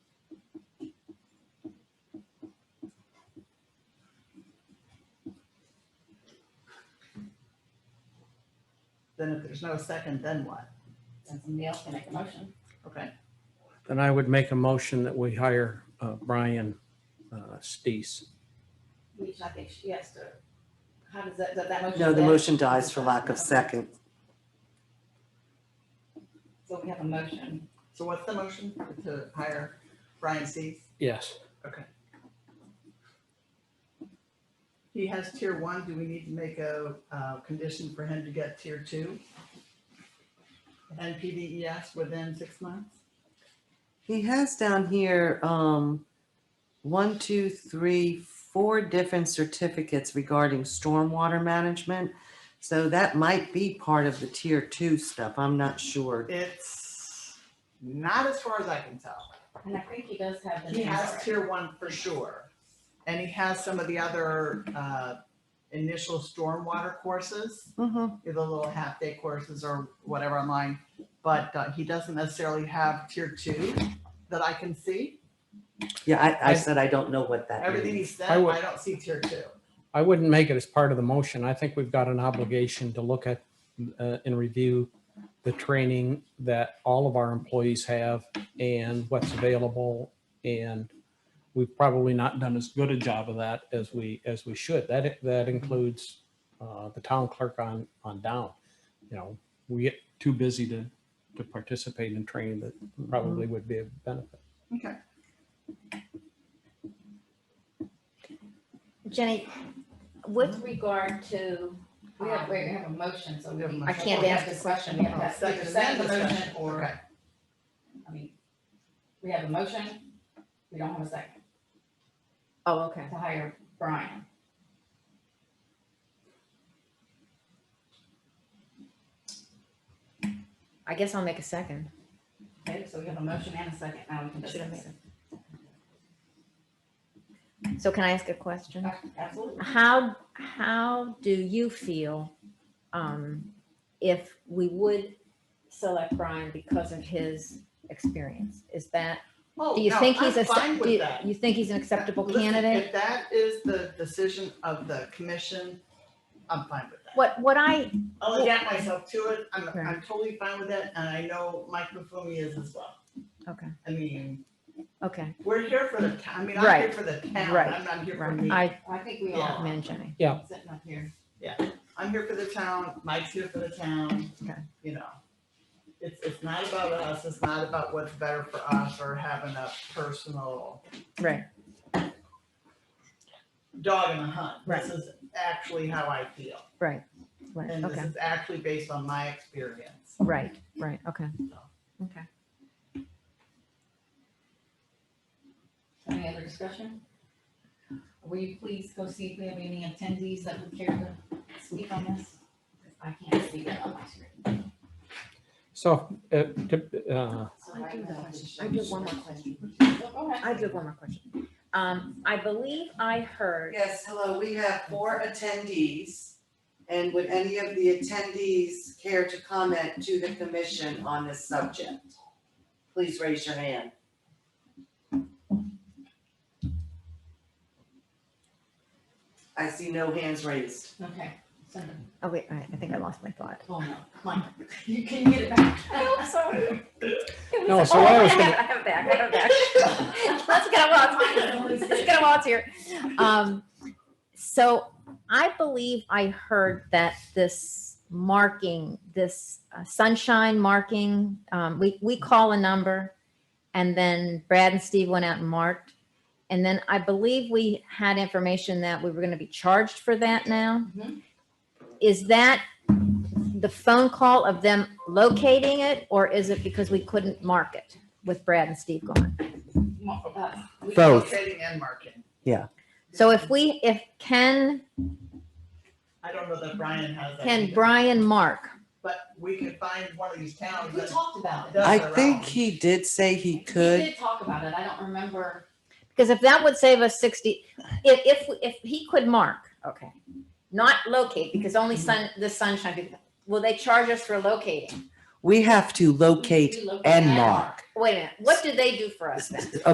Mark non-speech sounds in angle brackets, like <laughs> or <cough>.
Then if there's no second, then what? Then somebody else can make a motion. Okay, Then I would make a motion that we hire uh, Brian uh, Stees. We should, I think, she has to, how does that, that, that motion? No, the dead? motion dies for lack of second. So we have a motion. so what's the motion to hire Brian Sees? Yes. He has tier one, do we need to make a, uh, condition for him to get tier two? And PDES within six months? He has down here, um, one, two, three, four different certificates regarding stormwater management. So that might be part of the tier two stuff. I'm not sure. It's not as far as I can tell. And I think he does have the. He names has already. tier one for sure. And he has some of the other, uh, initial stormwater courses. Mhm. the little half day courses or whatever online, but uh, he doesn't necessarily have tier two that I can see. Yeah, I, I said I don't know what that Everything he means. said, I would- I don't see tier two. I wouldn't make it as part of the motion. I think we've got an obligation to look at uh, and review the training that all of our employees have and what's available. And we've probably not done as good a job of that as we, as we should. That, that includes uh, the town clerk on, on down. You know, we get too busy to, to participate in training that probably would be a benefit. Okay. Jenny, with regard to, We have, we have a motion, so We we. have a can- motion. I can't ask this question. We have to ask either second the motion discussion. or, Okay. I mean, we have a motion. We don't have a second oh, okay. to hire Brian. I guess I'll make a second. Okay, so we have a motion and a second. Now we can Should have discuss. So can I ask a question? Ab- Absolutely. How, how do you feel um, if we would select Brian because of his experience? Is that, Oh, do you no, think he's I'm a, fine do with you- that. you think he's an acceptable Listen, candidate? If that is the decision of the commission, I'm fine with that. What, what I, I'll adapt myself to it. I'm, Okay. I'm totally fine with that. And I know Mike Buffoni is as well. okay, I mean, okay, we're here for the town. I mean, I'm here Right. for the town. Right. I'm not here for me. right. I, I think we Yeah. all. man, Jenny, Sitting up here. I'm here for the town, Mike's here for the town. Okay. You know, it's, it's not about us, it's not about what's better for us or having a personal right, dog in the hunt. Right. This is actually how I feel, right, right, and this okay, is actually based on my experience. right, right, okay, So, okay. Any other discussion? Will you please go see if we have any attendees that would care to speak on this? I can't see that on my screen. So, uh, to- uh, So I do right now, have- just I showing do have one you. more question. Well, Go ahead. I do have one more question. Um, I believe I heard, Yes, hello, we have four attendees. And would any of the attendees care to comment to the commission on this subject? Please raise your hand. I see no hands raised. Okay, send it. oh wait, I, I think I lost my <laughs> thought. Oh, no, come on. You can get it back. sorry. No, so what I was <laughs> I have, I have it back, I have it back. <laughs> Let's get a while, it's let's get a while here. Um, so I believe I heard that this marking, this uh, sunshine marking, um, we, we call a number and then Brad and Steve went out and marked. And then I believe we had information that we were going to be charged for that now. Mhm. Is that the phone call of them locating it or is it because we couldn't mark it with Brad and Steve gone? Uh, we So- do Trading and marketing. So if we, if Ken, I don't know that Brian has that can either, Brian mark? But we can find one of these towns We that talked about it. does I their think own. he did say he We could. did talk about it. I don't remember. Because if that would save us sixty, if, if, if he could mark, okay, not locate, because only sun, the sunshine, people- will they charge us for locating? We have to We locate located and it. mark. Wait a minute, what do they do for us then?